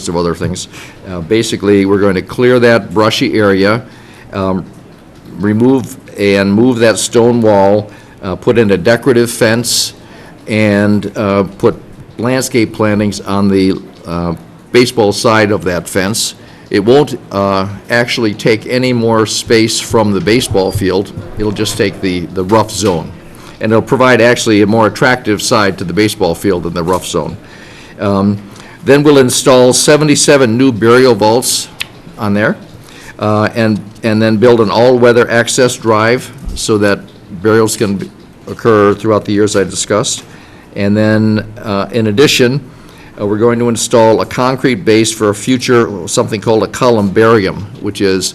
list of other things. Uh, Basically, we're going to clear that brushy area, um, remove and move that stone wall, uh, put in a decorative fence, and uh, put landscape plantings on the uh, baseball side of that fence. It won't uh, actually take any more space from the baseball field, it'll just take the, the rough zone. And it'll provide actually a more attractive side to the baseball field than the rough zone. Then we'll install 77 new burial vaults on there, uh, and, and then build an all-weather access drive so that burials can be- occur throughout the years I discussed. And then, uh, in addition, uh, we're going to install a concrete base for a future, something called a columbarium, which is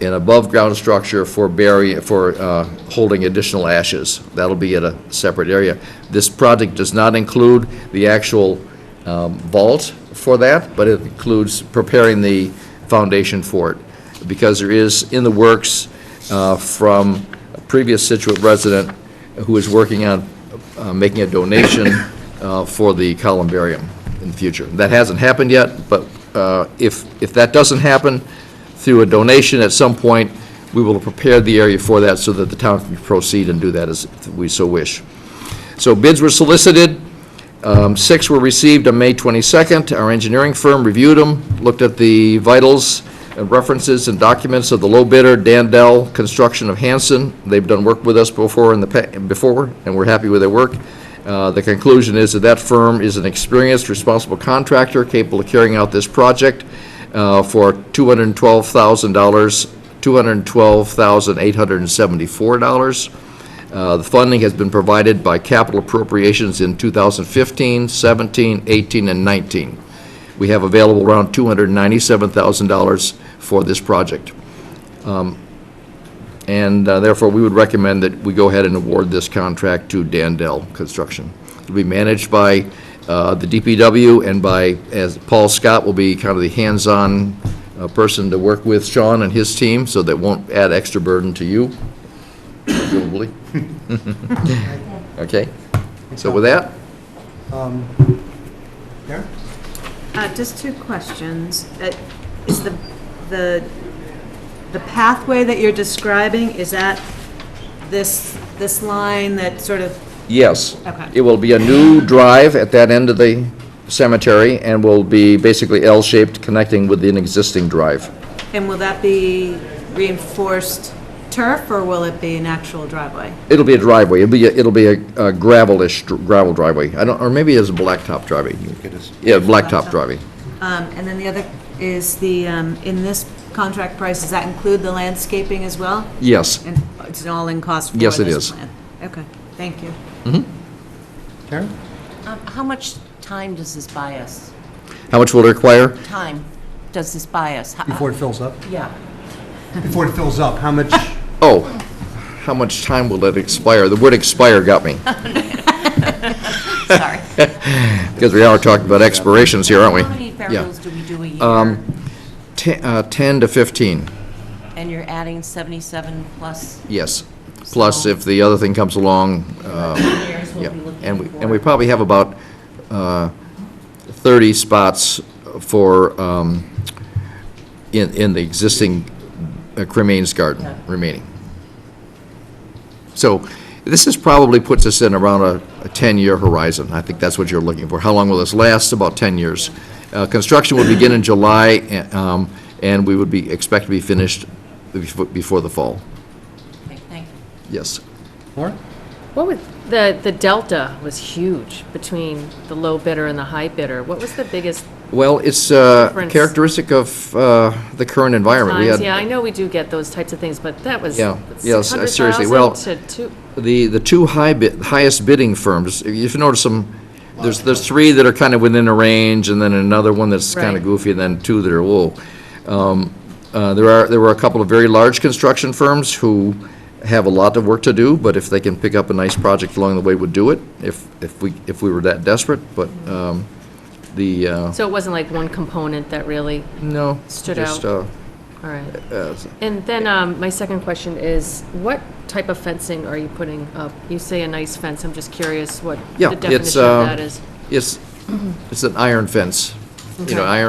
an above-ground structure for bury, for uh, holding additional ashes. That'll be at a separate area. This project does not include the actual um, vault for that, but it includes preparing the foundation for it, because there is in the works uh, from a previous Situate resident who is working on uh, making a donation uh, for the columbarium in the future. That hasn't happened yet, but uh, if, if that doesn't happen, through a donation at some point, we will prepare the area for that so that the town can proceed and do that as we so wish. So bids were solicited. Um, Six were received on May 22nd. Our engineering firm reviewed them, looked at the vitals, and references, and documents of the low bidder, Dandel Construction of Hanson. They've done work with us before in the, pa- before, and we're happy with their work. Uh, The conclusion is that that firm is an experienced, responsible contractor capable of carrying out this project uh, for $212,000, $212,874. Uh, The funding has been provided by capital appropriations in 2015, 17, 18, and 19. We have available around $297,000 for this project. Um, And uh, therefore, we would recommend that we go ahead and award this contract to Dandel Construction. It'll be managed by uh, the DPW and by, as Paul Scott will be kind of the hands-on uh, person to work with Sean and his team, so that won't add extra burden to you, presumably. Okay? So with that, Yeah, Uh, Just two questions. Uh, Is the, the, the pathway that you're describing, is that this, this line that sort of, Yes. Okay. It will be a new drive at that end of the cemetery and will be basically L-shaped, connecting with an existing drive. and will that be reinforced turf, or will it be an actual driveway? It'll be a driveway, it'll be, a- it'll be a a gravelish dr- gravel driveway. I don't, or maybe it's a blacktop driveway. Yeah, blacktop Blacktop. driveway. Um, And then the other is the, um, in this contract price, does that include the landscaping as well? Yes. And it's an all-in cost for Yes, this it plan? is. Okay, thank you. Karen? Um, How much time does this buy us? How much will it require? Time does this buy us? How- uh, Before it fills up? Yeah. Before it fills up, how much, Oh, how much time will it expire? The word expire got me, Sorry. because we are talking about expirations here, aren't we? How many Yeah, Um, burials do we do a year? Ten- uh, 10 to 15. And you're adding 77 plus Yes, plus So- if the other thing comes along, uh, years yeah. we'll be looking for? And we, and we probably have about uh, 30 spots for, um, in, in the existing uh, cremains Yeah. garden remaining. So this is probably puts us in around a a 10-year horizon. I think that's what you're looking for. How long will this last? About 10 years. Uh, Construction will begin in July, and, um, and we would be, expect to be finished befo- before the fall. Okay, Thank you. Yes. Laura? What was, the, the delta was huge between the low bidder and the high bidder. What was the biggest Well, it's uh, Difference. characteristic of uh, the current environment. We times? had Yeah, I know we do get those types of things, but that was Yeah, yes, uh, seriously, well- 600,000 to two- The, the two high bid, highest bidding firms, if you notice them, there's, there's three that are kind of within a range, and then another one that's kind of Right. goofy, and then two that are, whoa. Um, uh, There are, there were a couple of very large construction firms who have a lot of work to do, but if they can pick up a nice project along the way, would do it, if, if we, if we were that desperate, but um, the, uh, So it wasn't like one component that really, no. Stood just, out. all right. uh, uh, And then, um, my second question is, what type of fencing are you putting up? You say a nice fence, I'm just curious what Yeah, the it's, definition uh, of that is. It's, it's an iron fence, you know, Okay. iron